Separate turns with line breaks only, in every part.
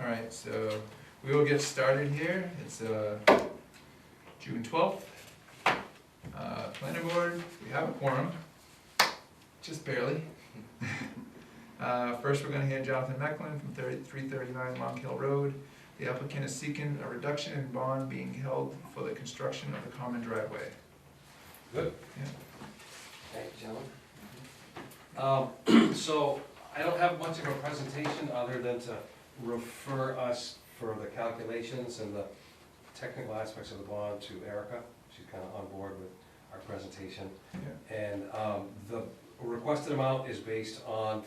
All right, so we will get started here. It's uh, June 12th. Uh, Planning board, we have a quorum, just barely. Uh, First, we're going to hear Jonathan Mecklin from 30 339 Long Hill Road. The applicant is seeking a reduction in bond being held for the construction of the common driveway.
Good.
Yeah.
Thank you, gentlemen. Um, So I don't have much of a presentation other than to refer us for the calculations and the technical aspects of the bond to Erica. She's kind of on board with our presentation. And um, the requested amount is based on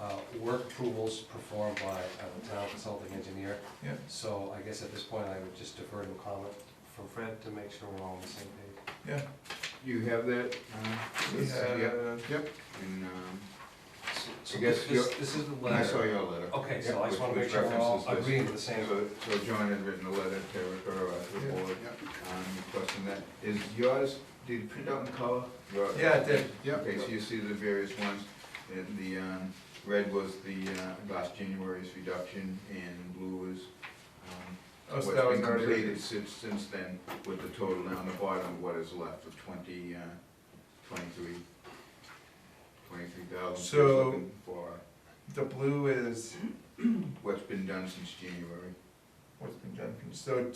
uh, work approvals performed by uh, the town consulting engineer.
Yeah.
So I guess at this point, I would just defer to comment from Fred to make sure we're all on the same page.
Yeah.
You have that? uh,
We
this- Yep,
have- oh,
yep, and, um,
So- So
I guess
this,
you're-
this is the
I saw
letter.
your letter.
Okay,
Yep,
so I
which-
just wanna
which
make sure we're all
references this.
agreeing to the same.
So, so John had written a letter to her, uh, to the
Yeah,
board, um, requesting that, is yours, did you print out in color? Your-
Yeah, it did.
Yep. Okay, so you see the various ones, and the, um, red was the, uh, last January's reduction, and blue was, um,
Oh,
what's
so that was
been
already,
completed since, since then, with the total down the bottom, what is left of twenty, uh, twenty-three, twenty-three thousand.
So-
For
the blue is
what's been done since January.
what's been done, so
Uh, what- I'm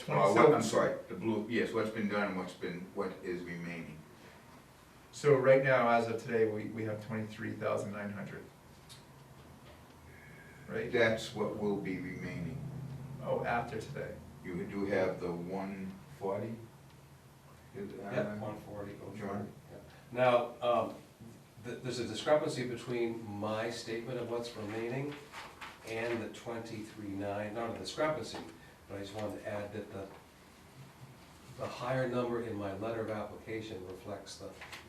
twenty, so,
sorry, the blue, yes, what's been done and what's been, what is remaining.
so right now, as of today, we, we have twenty-three thousand nine hundred. Right,
That's what will be remaining.
oh, after today,
You do have the one forty? uh,
Yeah, one forty,
John?
Now, um, th- there's a discrepancy between my statement of what's remaining and the twenty-three nine, not a discrepancy, but I just wanted to add that the, the higher number in my letter of application reflects the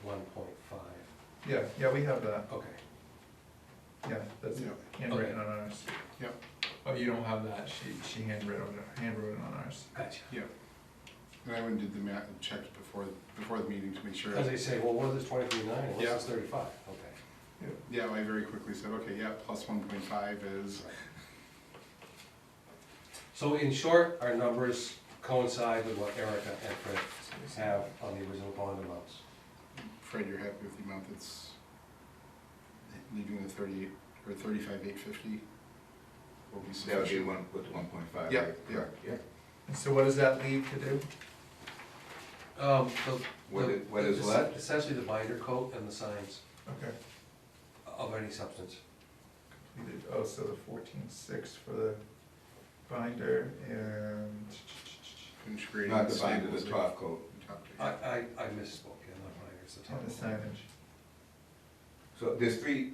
one point five.
yeah, yeah, we have that,
Okay,
yeah, that's handwritten on ours.
Yep.
Oh, you don't have that, she, she handwrote, handwrote on ours,
gotcha.
And I went and did the math and checked before, before the meeting to make sure.
As they say, well, what is twenty-three nine, what's
Yeah.
this thirty-five? Okay.
Yeah, I very quickly said, okay, yeah, plus one point five is,
So in short, our numbers coincide with what Erica and Fred have on the original bond amounts.
Fred, you're happy with the amount that's leaving the thirty, or thirty-five, eight fifty? Will
That would
be
be
sufficient.
one, with one point five,
Yeah,
right?
yeah.
Correct, yeah.
And so what does that leave to do?
Um, the-
What
the-
is, what is
the-
left?
Essentially the binder coat and the signs
Okay,
of any substance.
we did, oh, so the fourteen-six for the binder and,
Finish grading
Not the binder, the
staples,
top coat.
like, top to-
I,
Uh,
I, I misspoke, yeah, not binder, it's the top.
and the signage.
So there's three.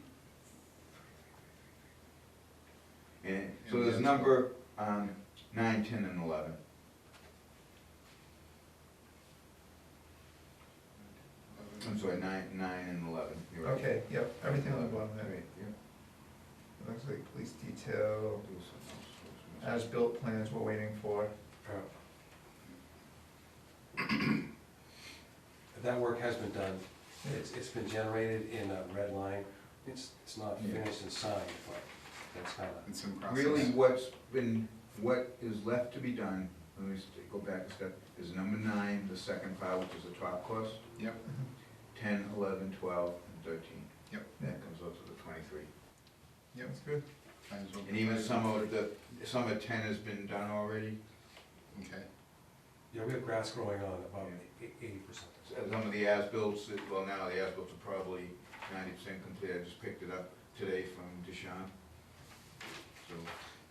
And, so
And
there's
that's-
number, um, nine, ten, and eleven. I'm sorry, nine, nine and eleven, you're right.
Okay, yep, everything on the bottom there.
Right, yeah.
It Looks like police detail,
There was something else that was missing.
as-built plans we're waiting for.
Yeah. Uh, That work has been done, it's, it's been generated in a red line, it's, it's not
Yeah.
finished and signed, but that's kinda.
It's in process.
Really, what's been, what is left to be done, let me st- go back a step, is number nine, the second pile, which is the top cost,
Yep,
Mm-hmm.
ten, eleven, twelve, and thirteen.
Yep.
That comes up to the twenty-three.
yep.
That's good.
might as well
And even
provide
some of
it.
the, some of ten has been done already,
Okay,
Yeah, we have grass growing on about eighty percent.
So some of the as-bills, that- well, now the as-bills are probably ninety percent complete, I just picked it up today from Deshawn. So,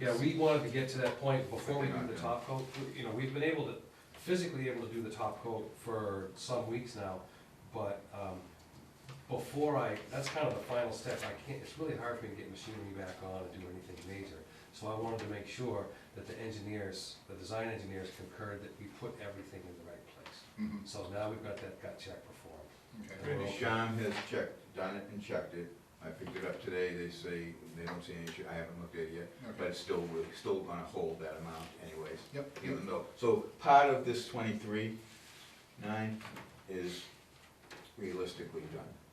Yeah, we wanted to get to that point before we do the top coat, you know, we've been able to, physically able to do the top coat for some weeks now, but, um, before I, that's kind of the final step, I can't, it's really hard for me to get machinery back on and do anything major. So I wanted to make sure that the engineers, the design engineers concurred that we put everything in the right place.
mhm,
So now we've got that gut check performed.
okay.
Great.
Deshawn has checked, done it and checked it, I picked it up today, they say, they don't see any issue, I haven't looked at it yet.
Okay.
but it's still, we're still gonna hold that amount anyways,
Yep, yep,
even though, so part of this twenty-three, nine is realistically done.